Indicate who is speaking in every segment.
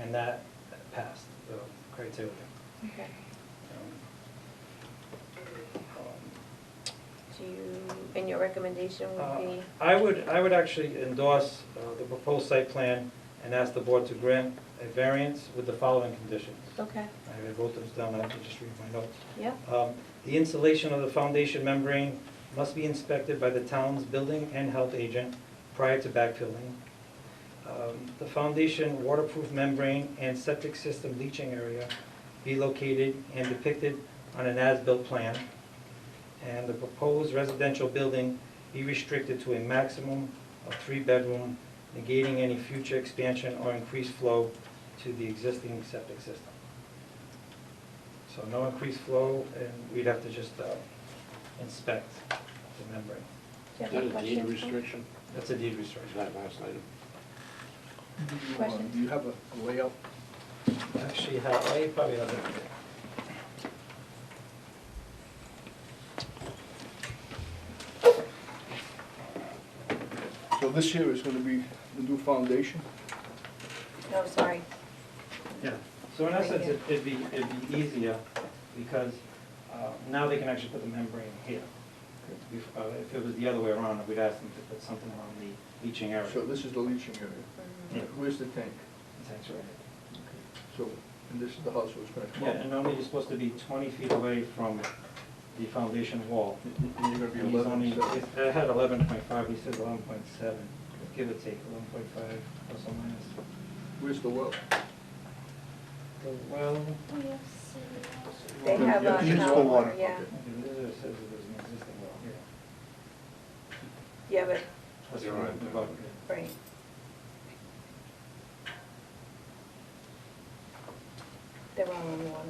Speaker 1: and that passed the criteria.
Speaker 2: Okay.
Speaker 1: Um,
Speaker 2: Do you, and your recommendation
Speaker 1: uh,
Speaker 2: would be?
Speaker 1: I would, I would actually endorse uh, the proposed site plan and ask the board to grant a variance with the following conditions.
Speaker 2: Okay,
Speaker 1: I wrote those down, I have to just read my notes.
Speaker 2: yeah,
Speaker 1: Um, The insulation of the foundation membrane must be inspected by the town's building and health agent prior to backfilling. Um, The foundation waterproof membrane and septic system leaching area be located and depicted on an as-built plan. And the proposed residential building be restricted to a maximum of three bedroom, negating any future expansion or increased flow to the existing septic system. So no increased flow, and we'd have to just uh, inspect the membrane.
Speaker 2: do
Speaker 3: Is
Speaker 2: you
Speaker 3: that
Speaker 2: have
Speaker 3: a
Speaker 2: any
Speaker 3: deed
Speaker 2: questions?
Speaker 3: restriction?
Speaker 1: That's a deed
Speaker 3: Is
Speaker 1: restriction.
Speaker 3: that last item?
Speaker 4: Do you, uh,
Speaker 2: Questions?
Speaker 4: Do you have a a layout?
Speaker 1: Actually, how, I probably have it.
Speaker 4: So this here is gonna be the new foundation?
Speaker 2: No, sorry,
Speaker 1: Yeah. So in
Speaker 2: Right
Speaker 1: essence,
Speaker 2: here.
Speaker 1: it- it'd be, it'd be easier, because uh, now they can actually put the membrane here. Bef- uh, If it was the other way around, we'd ask them to put something around the leaching area.
Speaker 4: So this is the leaching area.
Speaker 2: Mm-hmm.
Speaker 1: Yeah.
Speaker 4: Where's the tank?
Speaker 1: It's actually-
Speaker 4: So, and this is the house where it's gonna come
Speaker 1: Yeah,
Speaker 4: up?
Speaker 1: and only you're supposed to be 20 feet away from the foundation wall.
Speaker 4: And you're gonna
Speaker 1: He's
Speaker 4: be eleven,
Speaker 1: only,
Speaker 4: so,
Speaker 1: it's- I had eleven point five, he said eleven point seven, give or take, eleven point five, plus or minus.
Speaker 4: where's the well?
Speaker 1: The well,
Speaker 2: they
Speaker 4: Yeah,
Speaker 2: have
Speaker 4: yeah,
Speaker 2: a
Speaker 4: use for
Speaker 2: tower,
Speaker 4: water.
Speaker 2: yeah,
Speaker 1: okay, there says that there's an existing well here.
Speaker 2: yeah, but,
Speaker 1: Plus
Speaker 3: You're
Speaker 1: or
Speaker 3: right.
Speaker 1: minus above.
Speaker 2: right. They're all on water.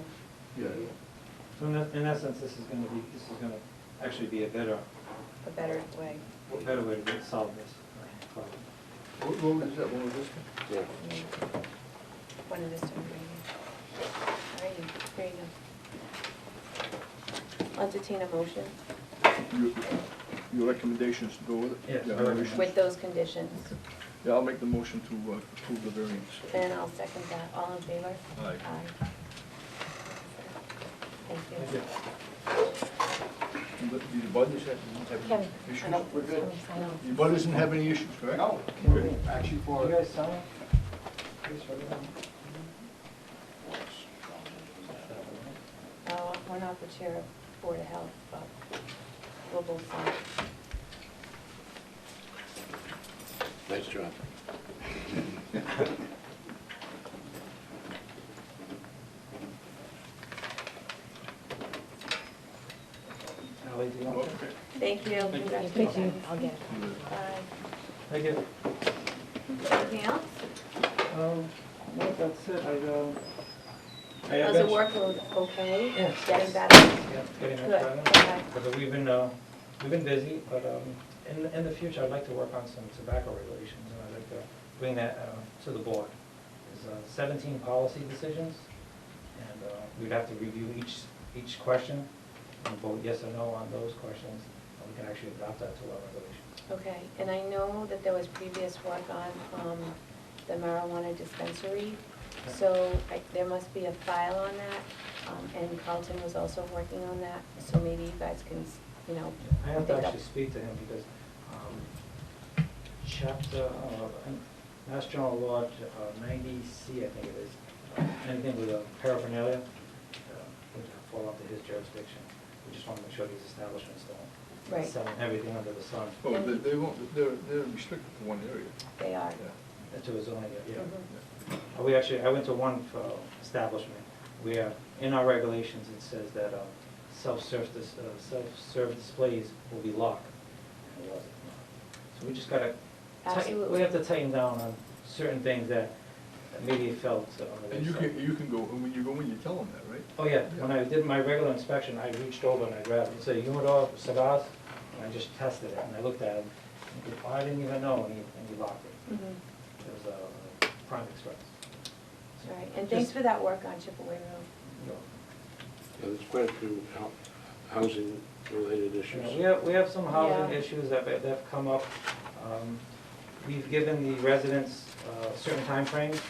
Speaker 4: Yeah,
Speaker 1: So in, that- in essence, this is gonna be, this is gonna actually be a better,
Speaker 2: a better way.
Speaker 1: a better way to solve this problem.
Speaker 4: What road is that, what was this one?
Speaker 3: Yeah.
Speaker 2: Yeah. One of this time, right here. All right, there you go. Entertain a motion
Speaker 4: Your, your recommendations to go with it?
Speaker 1: Yes,
Speaker 4: Yeah,
Speaker 1: I recommend.
Speaker 4: motions.
Speaker 2: with those conditions,
Speaker 4: Yeah, I'll make the motion to uh, approve the variance.
Speaker 2: and I'll second that. All in favor?
Speaker 4: Aye.
Speaker 2: Aye. Thank you.
Speaker 4: And the- The bud doesn't have any
Speaker 2: Kevin.
Speaker 4: issues?
Speaker 5: I know, we're good.
Speaker 2: I know.
Speaker 4: The bud doesn't have any issues, correct?
Speaker 5: No, actually
Speaker 1: You
Speaker 5: for,
Speaker 1: guys sign? Please, for them.
Speaker 2: Oh, we're not the chair of Board of Health, but we'll both sign.
Speaker 3: Nice job.
Speaker 1: Ally, do you want that?
Speaker 4: Okay.
Speaker 2: Thank you. Congratulations.
Speaker 5: I'll get it.
Speaker 2: Aye.
Speaker 1: Thank you.
Speaker 2: Uh, Anything else?
Speaker 1: Um, no, that's it, I, um. I
Speaker 2: How's the
Speaker 1: bet you-
Speaker 2: workload okay?
Speaker 1: Yes.
Speaker 2: Getting better?
Speaker 1: Yeah, getting much
Speaker 2: Good,
Speaker 1: better.
Speaker 2: okay.
Speaker 1: But we've been, uh, we've been busy, but um, in, in the future, I'd like to work on some tobacco regulations, and I'd like to bring that uh, to the board. There's uh, seventeen policy decisions, and uh, we'd have to review each, each question, and vote yes or no on those questions, and we can actually adopt that to our regulations.
Speaker 2: Okay, and I know that there was previous work on um, the marijuana dispensary, so I- there must be a file on that, um, and Carlton was also working on that, so maybe you guys can, you know,
Speaker 1: I have
Speaker 2: pick
Speaker 1: to
Speaker 2: up.
Speaker 1: actually speak to him because um, chapter, uh, Mass General Law uh, 90C, I think it is, uh, anything with a paraphernalia uh, would fall under his jurisdiction. We just want to make sure these establishments don't
Speaker 2: Right.
Speaker 1: sell everything under the sun
Speaker 4: Oh, they, they won't, they're, they're restricted to one area.
Speaker 2: They are.
Speaker 4: Yeah.
Speaker 1: into his own area.
Speaker 2: Mhm.
Speaker 1: Uh, We actually, I went to one uh, establishment where, in our regulations, it says that uh, self-serve, dis- uh, self-serve displays will be locked. And it wasn't. So we just gotta, tighten- we
Speaker 2: Absolutely.
Speaker 1: have to tighten down on certain things that maybe felt uh, on the
Speaker 4: And you
Speaker 1: wayside.
Speaker 4: can, you can go, and when you go in, you tell them that, right?
Speaker 1: Oh, yeah, when I did my regular inspection, I reached over and I grabbed, it's a humidor cigars, and I just tested it, and I looked at it, and he- I didn't even know, and he, and he locked it.
Speaker 2: Mhm.
Speaker 1: It was a prime express.
Speaker 2: All right, and thanks for that work on Chipaway Road.
Speaker 1: You know,
Speaker 3: Now, There's quite a few hou- housing-related
Speaker 1: You
Speaker 3: issues.
Speaker 1: know, We have, we have some housing
Speaker 2: Yeah.
Speaker 1: issues that, that have come up. Um, We've given the residents uh, certain timeframes